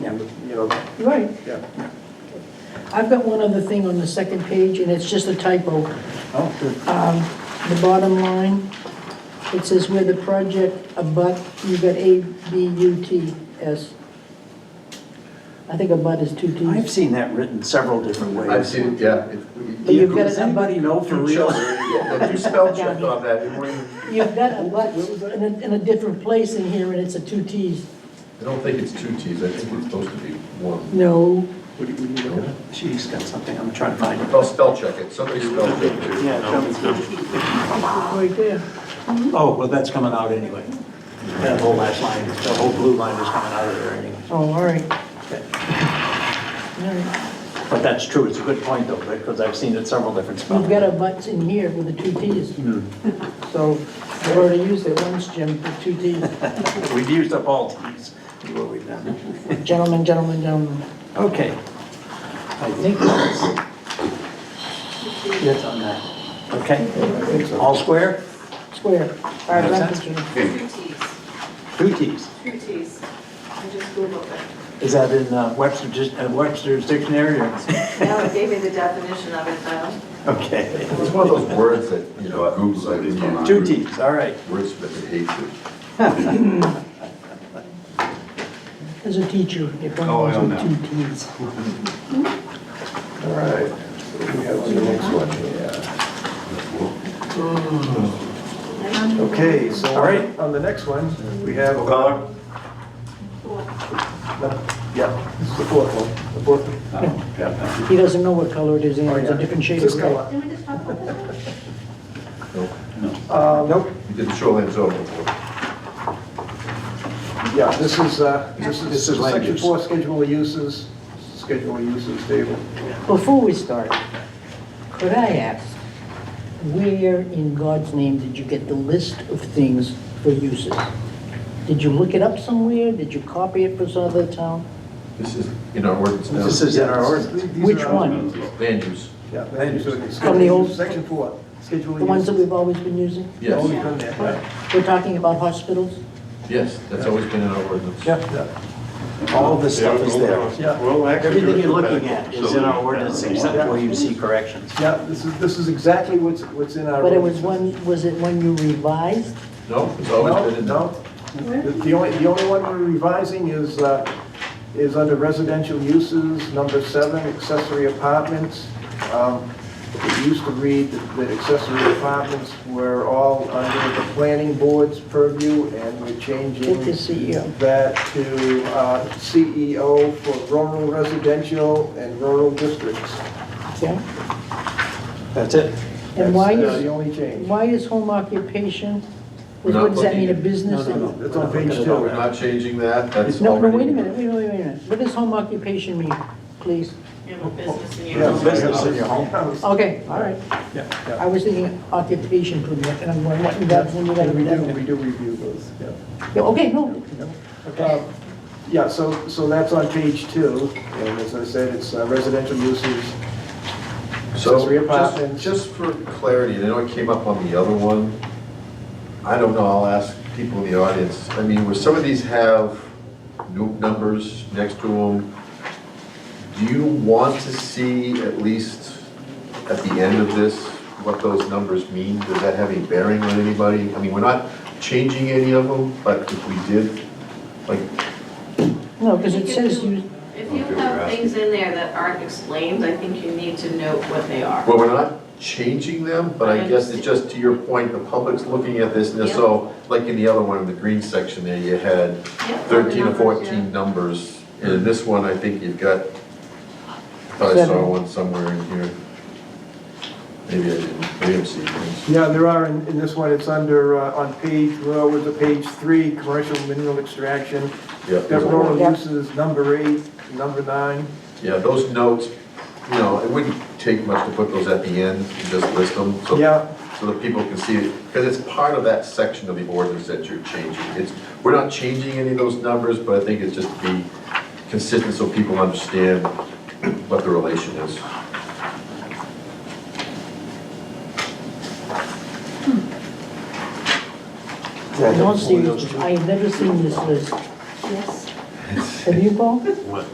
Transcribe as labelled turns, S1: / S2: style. S1: you know,
S2: Right.
S1: yeah.
S2: I've got one other thing on the second page, and it's just a typo.
S1: Oh,
S2: The bottom line, it says where the project abut, you got A, B, U, T, S. I think abut is two
S3: I've
S2: Ts.
S3: seen that written several different ways.
S4: I've seen, yeah. it-
S2: But you've got
S3: Does
S2: an abut,
S3: anybody know for
S4: You
S3: real?
S4: chose- yeah, You spell checked on that, it wouldn't-
S2: you've got abut in a, in a different place in here, and it's a two Ts.
S4: I don't think it's two Ts, I think it's supposed to be one.
S2: No,
S1: What do you, what do you look at?
S3: She's got something, I'm trying to find it.
S4: I'll spell check it, somebody spell check it.
S3: Yeah, tell me.
S2: right there.
S3: Oh, well, that's coming out anyway. That whole last line, the whole blue line is coming out of there anyway.
S2: Oh, all right. All right.
S3: But that's true, it's a good point though, because I've seen it several different spellings.
S2: You've got a butts in here with the two Ts. So I've already used it once, Jim, the two Ts.
S3: We've used up all Ts, is what we've done.
S2: Gentlemen, gentlemen, gentlemen.
S3: Okay. I think that's it on that. Okay, all square,
S2: Square. All right, back to Jim.
S5: Two Ts,
S3: two Ts.
S5: two Ts. I just Googled it.
S3: Is that in uh, Webster, dis- uh, Webster's dictionary or?
S5: Now it gave me the definition of it, though.
S3: Okay.
S4: It's one of those words that, you know, Google's like, you know,
S3: Two Ts, all right.
S4: words that they hate to.
S2: As a teacher, if one
S6: Oh, I
S2: was
S6: know.
S2: with two Ts.
S4: All right, so we have the next one, yeah.
S6: Okay, so
S3: All right.
S6: on the next one, we have.
S3: O'Connor?
S6: Yeah, it's the fourth one, the fourth one.
S2: He doesn't know what color it is, anyway. it's a different shade of
S6: This
S2: gray.
S6: color.
S4: Nope.
S6: Nope,
S4: You did shoreline zone before.
S6: yeah, this is, uh, this
S3: This
S6: is
S3: is land
S6: section
S3: use.
S6: four, schedule of uses, schedule of uses table.
S2: Before we start, could I ask, where in God's name did you get the list of things for uses? Did you look it up somewhere? Did you copy it for some other town?
S4: This is in our ordinance now.
S3: This is in our
S6: These-
S3: ordinance.
S6: these
S2: Which
S6: are our-
S2: one?
S4: Land use,
S6: Yeah, land use. ordinance,
S2: From the old-
S6: Section four, schedule of uses.
S2: The ones that we've always been using?
S4: yes,
S6: Always done that, yeah.
S2: We're talking about hospitals?
S4: yes, that's always been in our ordinance.
S6: Yeah,
S3: All this stuff is there.
S6: yeah,
S3: Everything you're looking at is in our ordinance except where you see corrections.
S6: yeah, this is, this is exactly what's, what's in our.
S2: But it was
S6: ordinance.
S2: one, was it one you revised?
S4: No, it's
S6: No,
S4: always been in.
S6: no. The the only, the only one we're revising is, uh, is under residential uses, number seven, accessory apartments. Um, It used to read that that accessory apartments were all under the planning board's purview, and we're changing
S2: Get the E CEO.
S6: that to uh, CEO for rural residential and rural districts.
S2: Yeah?
S3: That's it.
S2: And why
S6: That's, uh, The
S2: is,
S6: only change.
S2: why is home occupation, what
S4: Not
S2: what does that mean, a
S4: looking-
S2: business?
S6: That's on page
S3: Look at
S6: two.
S3: all
S4: We're
S3: that.
S4: not changing that, that's
S2: No,
S4: already.
S2: no, wait a minute, wait, wait, wait a minute. What does home occupation mean, please?
S5: You have a business in your
S6: Yeah,
S5: own.
S3: Business in your home.
S2: Okay, all right.
S3: Yeah.
S2: I was thinking occupation permit, and I'm going, what, that's when you gotta
S6: We
S2: read
S6: do,
S2: that.
S6: we do review those, yeah.
S2: Yeah, Okay, no,
S6: Uh, Yeah, so, so that's on page two, and as I said, it's uh, residential uses.
S4: So,
S6: Accessory
S4: just,
S6: apartments.
S4: just for clarity, and I know it came up on the other one, I don't know, I'll ask people in the audience, I mean, where some of these have new numbers next to them, do you want to see at least at the end of this, what those numbers mean? Does that have any bearing on anybody? I mean, we're not changing any of them, but if we did, like,
S2: no, because it
S5: You can
S2: says
S5: do-
S2: you,
S5: If you have things in there that aren't explained, I think you need to note what they are.
S4: Well, we're not changing them, but I guess it's just to your point, the public's looking at this, and so, like in the other one, in the green section there, you had
S5: Yeah, what the
S4: thirteen or
S5: numbers, yeah.
S4: fourteen numbers. And in this one, I think you've got, thought I saw
S2: Seven.
S4: one somewhere in here. Maybe I didn't, maybe I'm seeing things.
S6: Yeah, there are, in, in this one, it's under, uh, on page, well, with the page three, commercial mineral extraction.
S4: Yeah,
S6: Got
S4: there's a-
S6: rural
S2: Yeah.
S6: uses, number eight, number nine.
S4: yeah, those notes, you know, it wouldn't take much to put those at the end, and just list them, so.
S6: Yeah.
S4: So that people can see it, because it's part of that section of the ordinance that you're changing. It's, we're not changing any of those numbers, but I think it's just to be consistent so people understand what the relation is.
S2: I don't see, I have never seen this list. Yes. Have you, Paul?
S3: What?